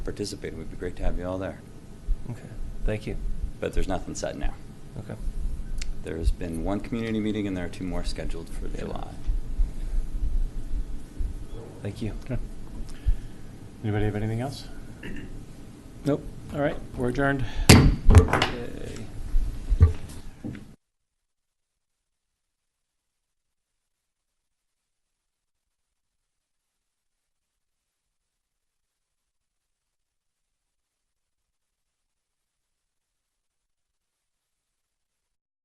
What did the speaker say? participating. It would be great to have you all there. Okay, thank you. But there's nothing set now. Okay. There's been one community meeting and there are two more scheduled for Sure. July. Thank you. Okay. Anybody have anything else? Nope. All right, we're adjourned. Okay.